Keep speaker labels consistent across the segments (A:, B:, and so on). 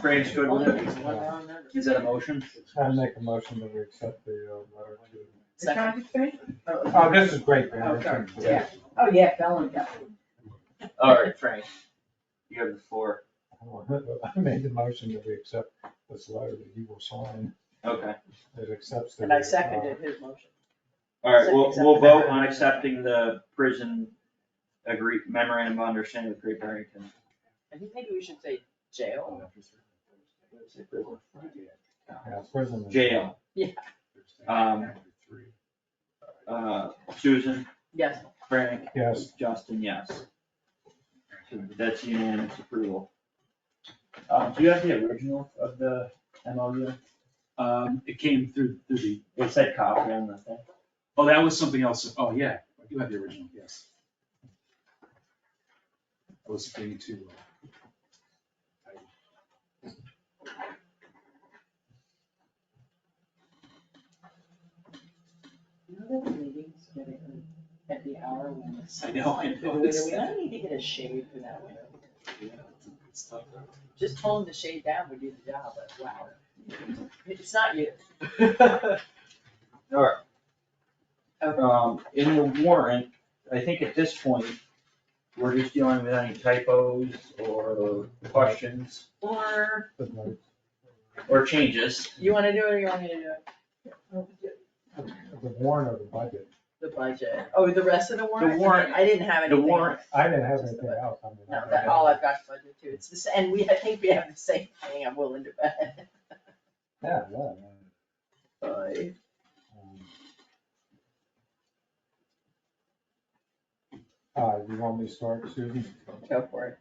A: Brain's good with it. Is that a motion?
B: I make a motion that we accept the uh, letter to.
C: The traffic study?
B: Oh, this is great, man.
C: Oh, sorry.
B: This is-
A: Yeah.
C: Oh, yeah, that one, yeah.
A: All right, Frank. You have the floor.
B: I made the motion that we accept this letter that you will sign,
A: Okay.
B: that accepts the.
C: And I seconded his motion.
A: All right, we'll, we'll vote on accepting the prison agree, memorandum of understanding with Great Barrington.
C: I think maybe we should say jail.
B: uh, Yeah, prison.
A: Jail.
C: Yeah.
A: Um, uh, Susan,
C: Yes.
A: Frank,
B: Yes,
A: Justin, yes. So That's unanimous approval. Um, do you have the original of the MOU?
D: Um, it came through, through the,
A: It said copy on the thing.
D: oh, that was something else, oh, yeah, I do have the original, yes. I was being too. uh, I-
C: You know those meetings that are at the hour when it's.
D: I know, I know.
C: Wait, We don't need to get a shade for that window.
D: yeah, it's- it's tough.
C: Just pulling the shade down would do the job, but wow. It's not you.
A: All right. Um, in the warrant, I think at this point, we're just dealing with any typos or questions
C: Or
B: but no,
A: or changes.
C: you wanna do it or you want me to do it?
B: the warrant of the budget,
C: The budget. Oh, the rest of the warrant?
A: warrant-
C: I didn't have
A: the
C: anything.
A: warrant-
C: else.
B: I didn't have anything else. I mean, I-
C: No, that, all I've got is budget too. It's this, and we, I think we have the same thing. I'm willing to bet.
B: Yeah, yeah. man.
C: Bye.
B: Um, Uh, you want me to start, Susan?
C: Go for it.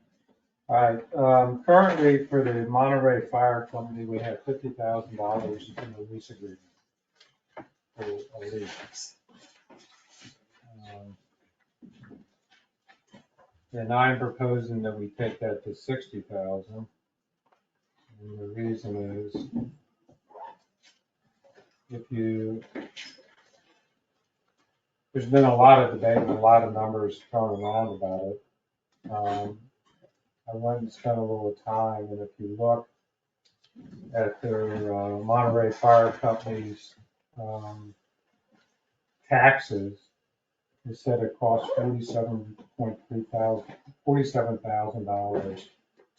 B: Alright, um, currently for the Monterey Fire Company, we have fifty thousand dollars in the lease agreement. For a lease. Um, And I'm proposing that we take that to sixty thousand. And the reason is if you, there's been a lot of debate and a lot of numbers thrown around about it. Um, I went and spent a little time, and if you look at their uh, Monterey Fire Company's um, taxes, it said it cost forty-seven point three thousand, forty-seven thousand dollars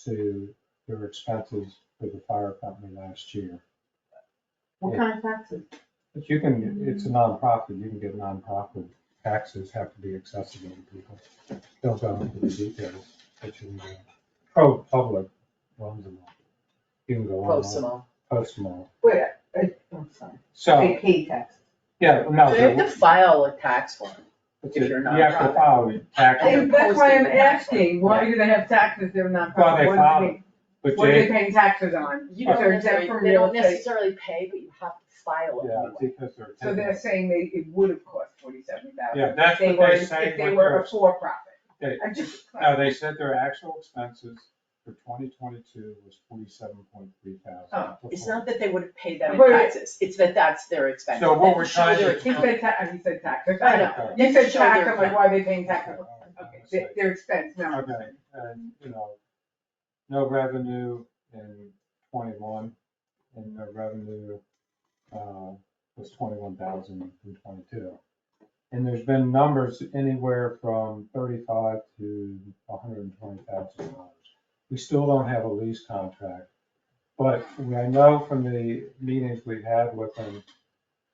B: to their expenses for the fire company last year. What
C: kind of taxes?
B: But you can, it's a nonprofit, you can get nonprofit taxes have to be accessible to people. Don't go into the details, but you can go, pro-public runs them all. You can go
C: Post them
B: online,
C: all.
B: post them all.
E: Wait,
C: Uh,
E: I,
C: oh,
E: I'm sorry,
B: So,
E: they pay taxes.
B: yeah, no,
C: They have to
B: but
C: file a tax form.
B: it's a-
C: if you're
B: you have to
C: nonprofit.
B: file your taxes,
C: And-
E: And that's why I'm
C: posting the tax.
E: asking, why do they have taxes if they're not,
B: Well, they
E: what are they,
B: but
E: what are they
B: they,
E: paying taxes on?
C: You
E: If
C: don't
E: they're
C: necessarily,
E: exempt from
C: they
E: real
C: don't
E: estate.
C: necessarily pay, but you have to file it
B: yeah,
C: anyway.
B: because they're.
E: So they're saying they, it would have cost forty-seven thousand.
B: Yeah, that's what they say.
E: If they
B: with
E: were
B: their-
E: a for-profit.
B: They- Oh,
E: I just.
B: No, they said their actual expenses for twenty twenty-two was forty-seven point three thousand.
C: Oh, It's not that they would have paid that in
E: But-
C: taxes, it's that that's their expense.
B: So what we're trying to-
E: He said ta, he said taxes,
C: I
E: I
C: know.
E: know,
B: Okay.
E: you said
C: Show
E: tax,
C: their-
E: I'm like, why are they paying taxes? Okay,
B: Okay.
E: their, their expense, no.
B: Okay, and, you know, no revenue in twenty-one, and no revenue, uh, was twenty-one thousand in twenty-two. And there's been numbers anywhere from thirty-five to hundred and twenty thousand dollars. We still don't have a lease contract, but I know from the meetings we've had with them,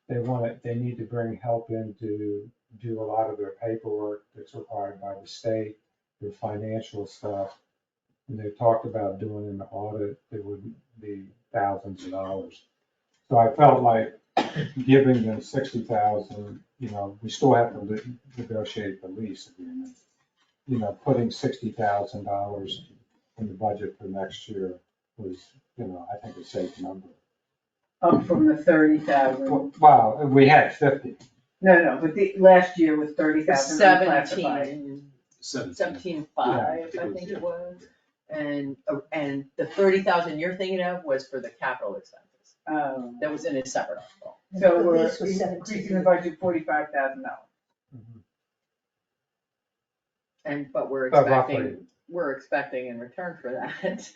B: they want it, they need to bring help in to do a lot of their paperwork that's required by the state your financial stuff. And they talked about doing an audit that would be thousands of dollars. So I felt like giving them sixty thousand, you know, we still have to li- negotiate the lease agreement. You know, putting sixty thousand dollars in the budget for next year was, you know, I think a safe number.
E: Up from the thirty thousand,
B: Wow, we had fifty.
E: no, no, but the, last year was thirty thousand unclassified.
C: Seventeen,
D: Seventeen.
C: seventeen five,
D: Yeah,
C: I
D: it
C: think
D: was,
C: it was. And, uh, and the thirty thousand you're thinking of was for the capital expenses,
E: Um,
C: that was in a separate article.
E: So
F: The
E: we're
F: lease was
E: increasing
F: 17.
E: the budget forty-five thousand dollars.
C: And, but we're
B: But roughly, Oh,
C: expecting, we're expecting in return for that,